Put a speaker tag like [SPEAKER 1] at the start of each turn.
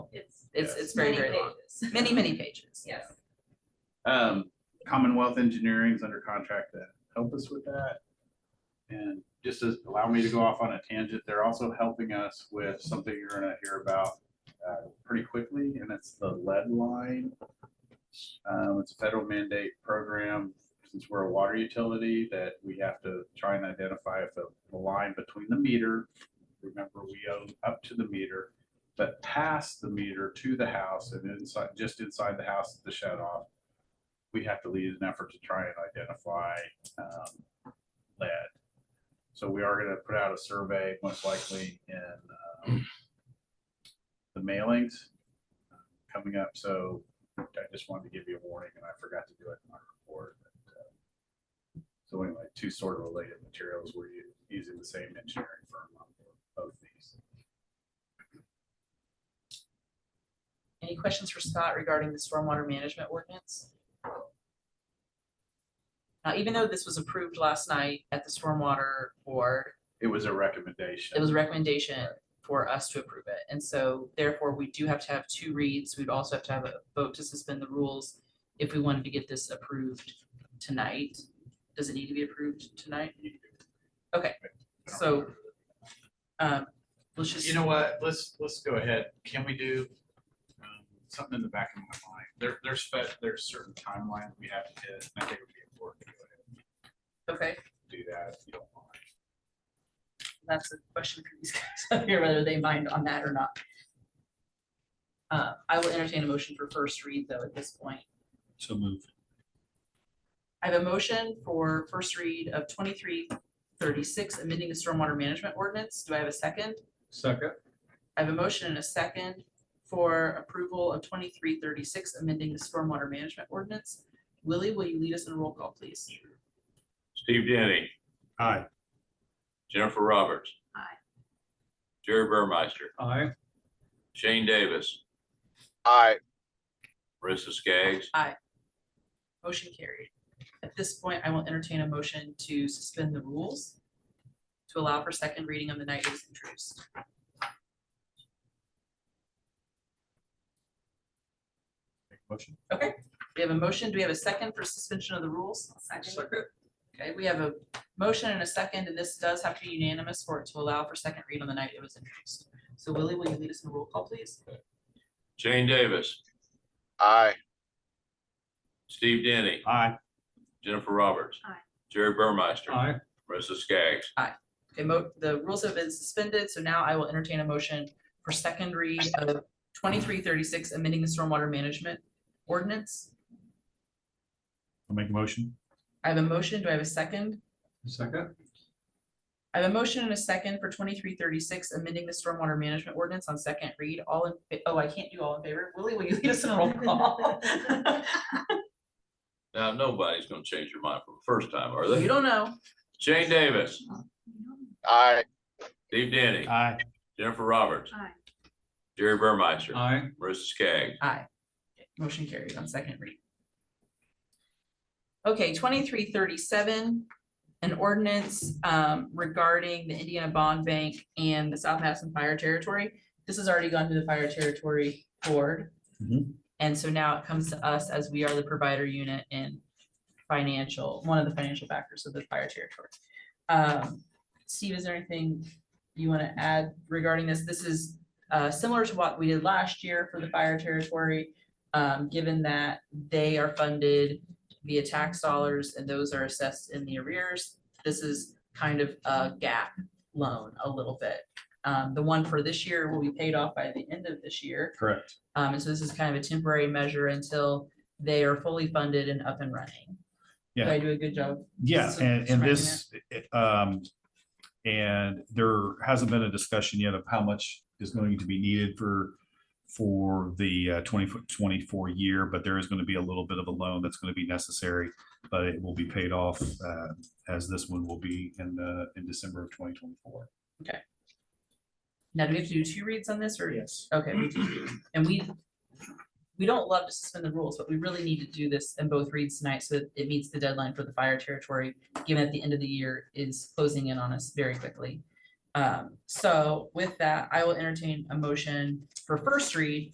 [SPEAKER 1] It's,
[SPEAKER 2] Yes.
[SPEAKER 1] it's very, very long, many, many pages.
[SPEAKER 3] Yes.
[SPEAKER 2] Um, Commonwealth Engineering is under contract to help us with that. And just to allow me to go off on a tangent, they're also helping us with something you're gonna hear about uh, pretty quickly, and it's the lead line. Um, it's a federal mandate program, since we're a water utility, that we have to try and identify if the the line between the meter, remember, we own up to the meter, but past the meter to the house and inside, just inside the house, the shut off. We have to lead an effort to try and identify um, lead. So we are gonna put out a survey, most likely in um, the mailings um, coming up, so I just wanted to give you a warning and I forgot to do it in my report. but, uh, So anyway, two sort of related materials, we're u- using the same engineering firm on both these.
[SPEAKER 1] Any questions for Scott regarding the stormwater management ordinance? Now, even though this was approved last night at the stormwater board,
[SPEAKER 2] It was a recommendation.
[SPEAKER 1] it was a recommendation for us to approve it. And so therefore, we do have to have two reads. We'd also have to have a vote to suspend the rules if we wanted to get this approved tonight. Does it need to be approved tonight? Okay, so um, let's just,
[SPEAKER 2] You know what, let's, let's go ahead, can we do um, something in the back of my mind? There, there's, fe- there's certain timeline we have to hit, and I think it would be important to go ahead and
[SPEAKER 1] okay,
[SPEAKER 2] do that, if you don't mind.
[SPEAKER 1] that's a question for these guys up here, whether they mind on that or not. Uh, I will entertain a motion for first read though at this point.
[SPEAKER 4] So move.
[SPEAKER 1] I have a motion for first read of twenty-three thirty-six, amending the stormwater management ordinance. Do I have a second?
[SPEAKER 4] Second.
[SPEAKER 1] I have a motion and a second for approval of twenty-three thirty-six, amending the stormwater management ordinance. Willie, will you lead us in a roll call, please?
[SPEAKER 5] Steve Denny,
[SPEAKER 4] Aye.
[SPEAKER 5] Jennifer Roberts.
[SPEAKER 1] Aye.
[SPEAKER 5] Jerry Burmeister,
[SPEAKER 4] Aye.
[SPEAKER 5] Shane Davis,
[SPEAKER 6] Aye,
[SPEAKER 5] Marissa Skaggs,
[SPEAKER 1] Motion carried. At this point, I will entertain a motion to suspend the rules to allow for second reading of the night it was introduced.
[SPEAKER 4] Motion.
[SPEAKER 1] We have a motion. Do we have a second for suspension of the rules?
[SPEAKER 3] Second.
[SPEAKER 1] Okay, we have a motion and a second, and this does have to be unanimous for it to allow for second read on the night it was introduced. So Willie, will you lead us in a roll call, please?
[SPEAKER 5] Shane Davis,
[SPEAKER 6] aye,
[SPEAKER 5] Steve Denny,
[SPEAKER 4] Aye.
[SPEAKER 5] Jennifer Roberts.
[SPEAKER 3] Aye.
[SPEAKER 5] Jerry Burmeister,
[SPEAKER 4] Aye.
[SPEAKER 5] Marissa Skaggs,
[SPEAKER 1] Okay, mo- the rules have been suspended, so now I will entertain a motion for second read of twenty-three thirty-six, amending the stormwater management ordinance.
[SPEAKER 4] I'll make a motion.
[SPEAKER 1] I have a motion. Do I have a second?
[SPEAKER 4] Second.
[SPEAKER 1] I have a motion and a second for twenty-three thirty-six, amending the stormwater management ordinance on second read. All in, fa- oh, I can't do all in favor. Willie, will you lead us in a roll call?
[SPEAKER 5] now nobody's gonna change your mind for the first time, are
[SPEAKER 1] You
[SPEAKER 5] they?
[SPEAKER 1] don't know.
[SPEAKER 5] Shane Davis,
[SPEAKER 6] aye,
[SPEAKER 5] Steve Denny,
[SPEAKER 4] Aye.
[SPEAKER 5] Jennifer Roberts,
[SPEAKER 3] Aye.
[SPEAKER 5] Jerry Burmeister,
[SPEAKER 4] Aye.
[SPEAKER 5] Marissa Skaggs,
[SPEAKER 1] Aye. Motion carried on second read. Okay, twenty-three thirty-seven, an ordinance um, regarding the Indiana Bond Bank and the South Madison Fire Territory. This has already gone to the Fire Territory Board.
[SPEAKER 4] Mhm.
[SPEAKER 1] And so now it comes to us as we are the provider unit and financial, one of the financial backers of the Fire Territory. Um, Steve, is there anything you want to add regarding this? This is uh, similar to what we did last year for the fire territory. Um, given that they are funded via tax dollars and those are assessed in the arrears, this is kind of a gap loan a little bit. Um, the one for this year will be paid off by the end of this year.
[SPEAKER 4] Correct.
[SPEAKER 1] Um, and so this is kind of a temporary measure until they are fully funded and up and running. Did I do a good job?
[SPEAKER 4] Yeah,
[SPEAKER 1] So-
[SPEAKER 4] and,
[SPEAKER 1] so
[SPEAKER 4] and
[SPEAKER 1] wrapping
[SPEAKER 4] this, it- um, and there hasn't been a discussion yet of how much is going to be needed for, for the uh, 24 24 year, but there is going to be a little bit of a loan that's going to be necessary, but it will be paid off, uh, as this one will be in, uh, in December of twenty twenty-four.
[SPEAKER 1] Now, do we have to do two reads on this or?
[SPEAKER 4] Yes.
[SPEAKER 1] Okay, we do, do- and we, we don't love to suspend the rules, but we really need to do this in both reads tonight so that it meets the deadline for the fire territory, given at the end of the year is closing in on us very quickly. Um, so with that, I will entertain a motion for first read